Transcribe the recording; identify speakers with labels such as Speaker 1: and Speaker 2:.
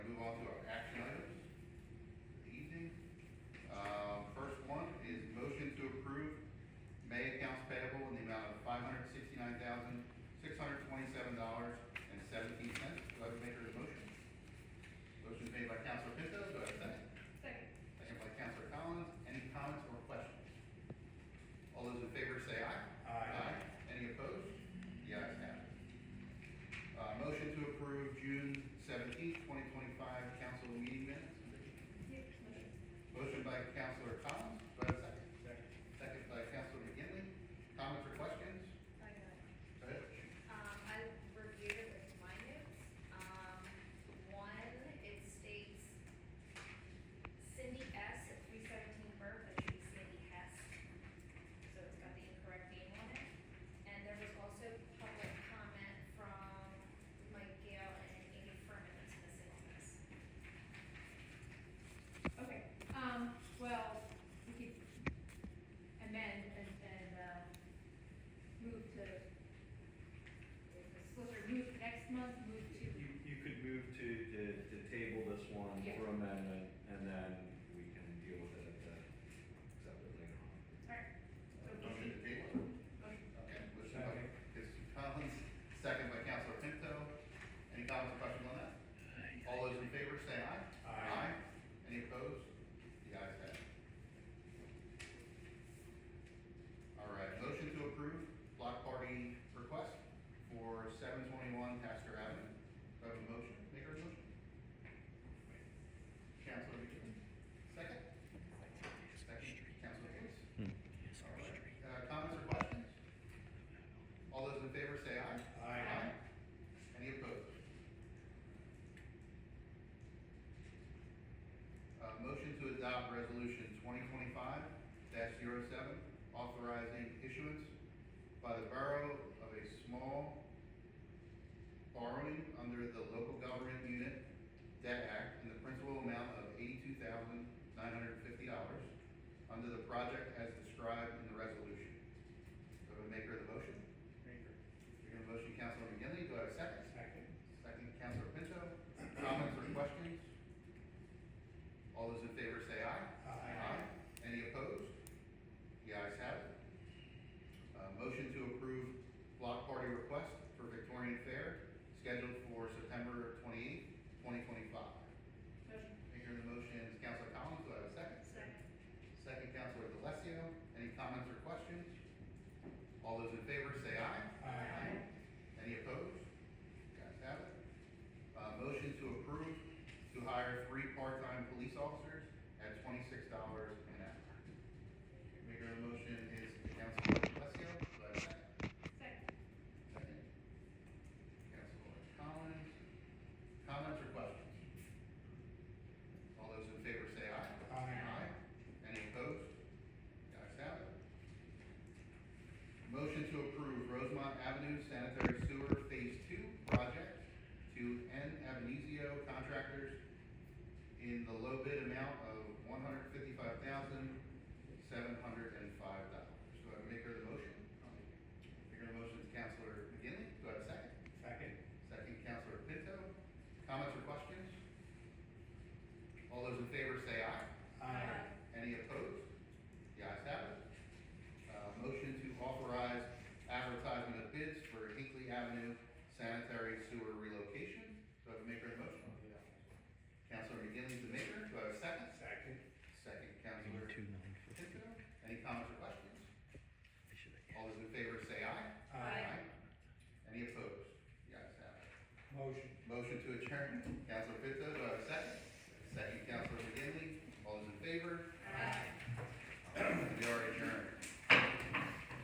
Speaker 1: Uh, Uh, Uh, Uh, motion to adopt resolution twenty twenty-five 7 authorizing issuance by the borough of a small borrowing under the Local Government Unit Debt Act in the principal amount of eighty-two thousand nine hundred and fifty dollars under the project as described in the resolution. Do I have a maker of the motion?
Speaker 2: Maker.
Speaker 1: You're gonna motion Councilor McGinley, do I have a second?
Speaker 2: Second.
Speaker 1: Second, Councilor Pinto. Comments or questions? All those in favor say aye. Any opposed? The ayes have it. Uh, motion to approve block party request for Victorian Fair scheduled for September twenty-eighth, twenty twenty-five.
Speaker 3: Motion.
Speaker 1: Maker of the motion is Councilor Collins, do I have a second?
Speaker 3: Second.
Speaker 1: Second, Councilor Delesio. Any comments or questions? All those in favor say aye.
Speaker 2: Aye.
Speaker 1: Any opposed? Guys have it. Uh, motion to approve to hire three part-time police officers at twenty-six dollars an hour. Maker of the motion is Councilor Delesio, do I have a second?
Speaker 3: Second.
Speaker 1: Second. Councilor Collins. Comments or questions? All those in favor say aye.
Speaker 2: Aye.
Speaker 1: Any opposed? Guys have it. Motion to approve Rosemont Avenue Sanitary Sewer Phase Two project to N Avenizio Contractors in the low bid amount of one hundred fifty-five thousand, seven hundred and five dollars. Do I have a maker of the motion? Maker of the motion is Counselor McGinley. Do I have a second?
Speaker 2: Second.
Speaker 1: Second, Counselor Pinto. Comments or questions? All those in favor say aye. Any opposed? The ayes have it. Uh, motion to authorize advertisement of bids for Hinkley Avenue sanitary sewer relocation. Do I have a maker of the motion? Counselor McGinley is the maker. Do I have a second?
Speaker 2: Second.
Speaker 1: Second, Counselor
Speaker 4: Two nine fifty.
Speaker 1: Pinto. Any comments or questions?
Speaker 4: I should have-
Speaker 1: All those in favor say aye.
Speaker 3: Aye.
Speaker 1: Any opposed? The ayes have it.
Speaker 2: Motion.
Speaker 1: Motion to adjourn. Counselor Pinto, do I have a second? Second, Counselor